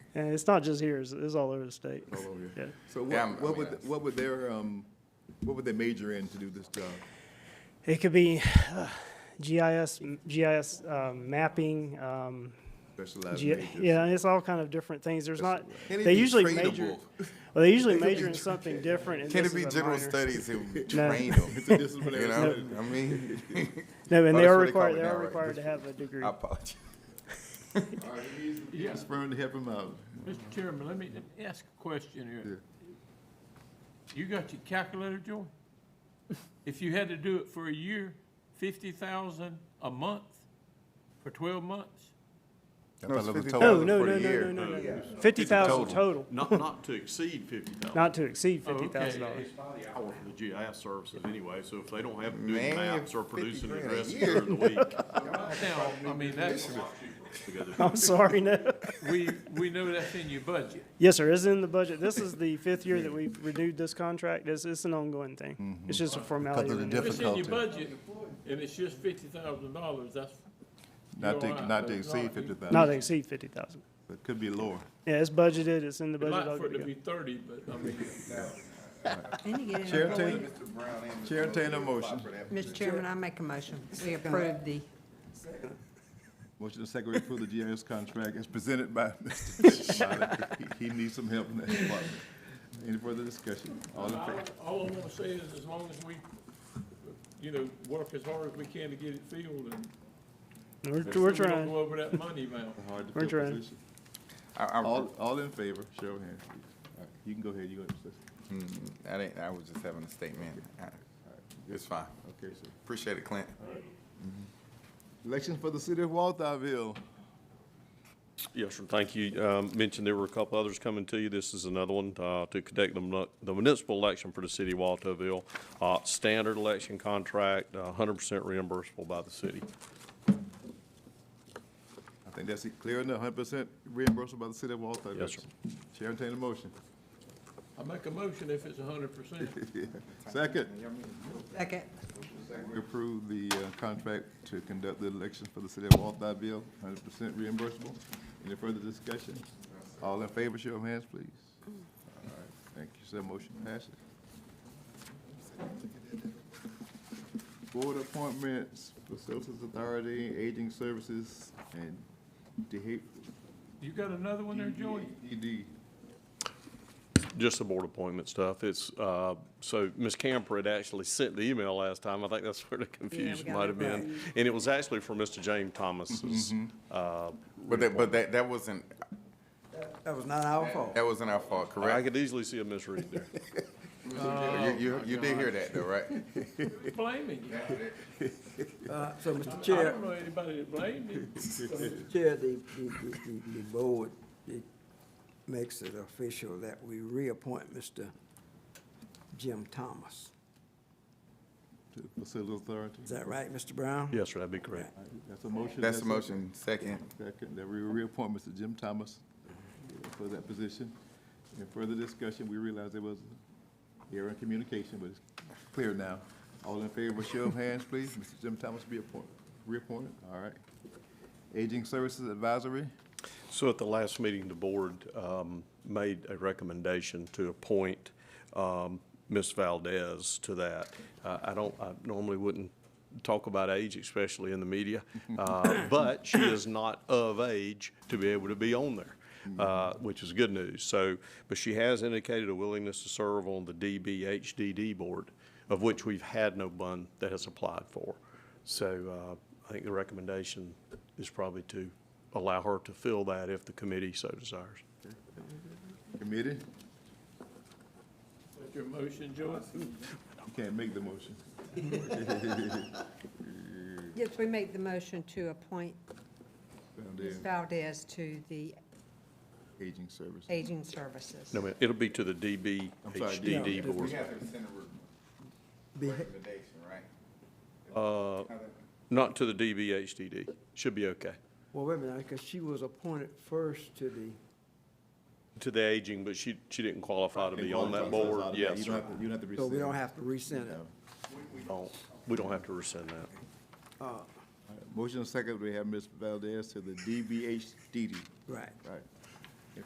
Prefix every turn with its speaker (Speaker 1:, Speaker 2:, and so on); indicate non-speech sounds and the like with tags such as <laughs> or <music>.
Speaker 1: And it's not just here, it's, it's all over the state.
Speaker 2: all over here.
Speaker 1: Yeah.
Speaker 2: So
Speaker 3: Yeah, I'm-
Speaker 2: what,
Speaker 3: I
Speaker 2: what
Speaker 3: mean,
Speaker 2: would,
Speaker 3: that's-
Speaker 2: what would their, um, what would they major in to do this job?
Speaker 1: It could be uh, GIS, GIS um, mapping, um,
Speaker 2: Specialized
Speaker 1: Ge-
Speaker 2: majors?
Speaker 1: Yeah, it's all kind of different things. There's not,
Speaker 3: Can it
Speaker 1: they
Speaker 3: be
Speaker 1: usually
Speaker 3: trainable?
Speaker 1: major, well, they usually major in something different. and
Speaker 3: Can
Speaker 1: this
Speaker 3: it be
Speaker 1: is a
Speaker 3: general
Speaker 1: minor.
Speaker 3: studies and
Speaker 1: <laughs> No.
Speaker 3: train them?
Speaker 2: <laughs> So this is what
Speaker 3: You
Speaker 2: they're-
Speaker 3: know,
Speaker 1: <laughs>
Speaker 3: I mean,
Speaker 1: No, and
Speaker 3: Oh,
Speaker 1: they
Speaker 3: that's
Speaker 1: are
Speaker 3: what they call
Speaker 1: required,
Speaker 3: it
Speaker 1: they
Speaker 3: now,
Speaker 1: are
Speaker 3: right?
Speaker 1: required to have a degree.
Speaker 3: I apologize.
Speaker 2: All right, we need- we need Spurn to help him out.
Speaker 4: Mr. Chairman, let me, let me ask a question here. You got your calculator, Joy? If you had to do it for a year, fifty thousand a month for twelve monons
Speaker 2: it
Speaker 3: No, it's
Speaker 2: was
Speaker 3: 50
Speaker 2: total
Speaker 1: No,
Speaker 3: dollars
Speaker 1: no,
Speaker 3: for
Speaker 1: no,
Speaker 3: the year.
Speaker 1: no, no, no, no. Fifty thousand total,
Speaker 5: Not, not to exceed fifty thousand.
Speaker 1: not to exceed
Speaker 4: Oh, okay.
Speaker 1: fifty thousand dollars.
Speaker 5: By the hour for the GIS services anyway, so if they don't have to do
Speaker 3: Man,
Speaker 5: maps or
Speaker 3: 50
Speaker 5: producing
Speaker 3: grand a
Speaker 5: addresses
Speaker 3: year.
Speaker 5: during the week.
Speaker 4: Now, I mean, that's,
Speaker 1: I'm sorry, no.
Speaker 4: we, we know that's in your budget.
Speaker 1: Yes, sir, it's in the budget. This is the fifth year that we've renewed this contract. It's, it's an ongoing thing.
Speaker 3: Mm-hmm.
Speaker 1: It's just a formality.
Speaker 3: the
Speaker 1: renewal.
Speaker 3: diff-
Speaker 4: If it's in your
Speaker 3: Difficulty.
Speaker 4: budget, and it's just fifty thousand dollars, that's.
Speaker 2: Not
Speaker 4: you're all
Speaker 2: to,
Speaker 4: right.
Speaker 2: not to
Speaker 4: It's
Speaker 2: exceed
Speaker 4: not-
Speaker 2: fifty
Speaker 1: Not to
Speaker 2: thousand,
Speaker 1: exceed fifty thousand.
Speaker 2: but could be lower.
Speaker 1: Yeah, it's budgeted, it's in the
Speaker 4: I'd
Speaker 1: budget. all
Speaker 4: like for it
Speaker 1: good
Speaker 4: to
Speaker 1: to
Speaker 4: be thirty, but I mean,
Speaker 6: They need to get
Speaker 2: Chair
Speaker 6: in a
Speaker 2: entertain-
Speaker 6: void.
Speaker 2: Chair entertain a motion.
Speaker 6: Mr. Chairman, I make a motion. We approve the,
Speaker 2: Motion to second to approve the GIS contract is presented by <laughs> Mr. Moniker. He he needs some help in that department. Any further discussion? All in favor?
Speaker 4: all I wanna say is as long as we, you know, work as hard as we can to get it filled and
Speaker 1: go. We're, we're
Speaker 4: So we don't
Speaker 1: trying.
Speaker 4: go over that money amount.
Speaker 2: Hard to
Speaker 1: We're
Speaker 2: fill
Speaker 1: trying.
Speaker 2: position.
Speaker 3: I, I,
Speaker 2: All, all in favor, show of hands, please. All right, You can go ahead, you go ahead. sis.
Speaker 3: Mm, I didn't, I was just having a statement. I- It's fine.
Speaker 2: Okay, sir.
Speaker 3: Appreciate it, Clint.
Speaker 2: Elections for the city of Walthamville.
Speaker 5: Yes, sir, thank you. Um, Mentioned there were a couple others coming to you. This is another one uh, to conduct the mun- the municipal election for the city of Waltoville. Uh, Standard election contract, uh, hundred percent reimbursable by the city.
Speaker 2: I think that's it, clear enough, hundred percent reimbursed by the city of Walthamville.
Speaker 5: Yes, sir.
Speaker 2: Chair entertain a motion. <laughs>
Speaker 4: I make a motion if it's a hundred percent.
Speaker 2: Second,
Speaker 6: second,
Speaker 2: we approve the uh, contract to conduct the elections for the city of Walthamville, hundred percent reimbursable. Any further discussion? All in favor, show of hands, please. All right, thank you, sir, motion passes. Board appointments, Facilities Authority, Aging Services, and DHEC.
Speaker 4: You got another one there, Joey?
Speaker 2: ED.
Speaker 5: Just the board appointment stuff. It's, uh, so Ms. Camper had actually sent the email last time. I think that's where the confusion
Speaker 6: got
Speaker 5: might have
Speaker 6: that
Speaker 5: been. And it was actually for Mr. James Thomas's, uh,
Speaker 3: But that, but that, that wasn't,
Speaker 7: That was not our fault.
Speaker 3: that wasn't our fault,
Speaker 5: I
Speaker 3: correct?
Speaker 5: could easily see a misread there.
Speaker 3: You, you, you did hear that though, right? <laughs>
Speaker 4: Blaming you.
Speaker 7: Uh, So, Mr.
Speaker 4: I
Speaker 7: Chair,
Speaker 4: don't know anybody that blamed you.
Speaker 7: so, Mr. Chair, the, the, the- the, the board, it makes it official that we reappoint Mr. Jim Thomas.
Speaker 2: to Facilities Authority.
Speaker 7: Is that right, Mr. Brown?
Speaker 5: Yes, sir, that'd be correct.
Speaker 2: That's a motion.
Speaker 3: That's the motion, second.
Speaker 2: Second, that we reappoint Mr. Jim Thomas uh, for that position. In further discussion, we realized there was error in communication, but it's clear now. All in favor, show of hands, please. Mr. Jim Thomas be appointed, reappointed, all right. Aging Services Advisory,
Speaker 5: So at the last meeting, the board um, made a recommendation to appoint um, Ms. Valdez to that. Uh, I don't, I normally wouldn't talk about age, especially in the media, uh, but she is not of age to be able to be on there, uh, which is good news. So, but she has indicated a willingness to serve on the DBHDD board, of which we've had no one that has applied for. So uh, I think the recommendation is probably to allow her to fill that if the committee so desires.
Speaker 2: committee,
Speaker 4: That's your motion, Joey?
Speaker 2: you can't make the motion.
Speaker 6: yes, we make the motion to appoint
Speaker 2: Down
Speaker 6: Ms.
Speaker 2: there,
Speaker 6: Valdez to the
Speaker 2: Aging Services.
Speaker 6: Aging Services.
Speaker 5: No, ma'am, it'll be to the
Speaker 2: I'm sorry, yeah.
Speaker 5: DBHDD board.
Speaker 3: have to send a
Speaker 7: Be-
Speaker 3: recommendation, right?
Speaker 5: Uh, Not to the DBHDD. Should be okay.
Speaker 7: Well, wait a minute, because she was appointed first to the,
Speaker 5: To the aging, but she, she didn't qualify to be on that board. Yes,
Speaker 2: You don't
Speaker 5: sir.
Speaker 2: have to- you don't have to
Speaker 7: so we don't
Speaker 2: rescind.
Speaker 7: have to rescind it.
Speaker 2: No.
Speaker 5: We don't- We don't have to rescind that.
Speaker 7: Uh,
Speaker 2: Motion second, we have Ms. Valdez to the DBHDD.
Speaker 7: Right.
Speaker 2: Right.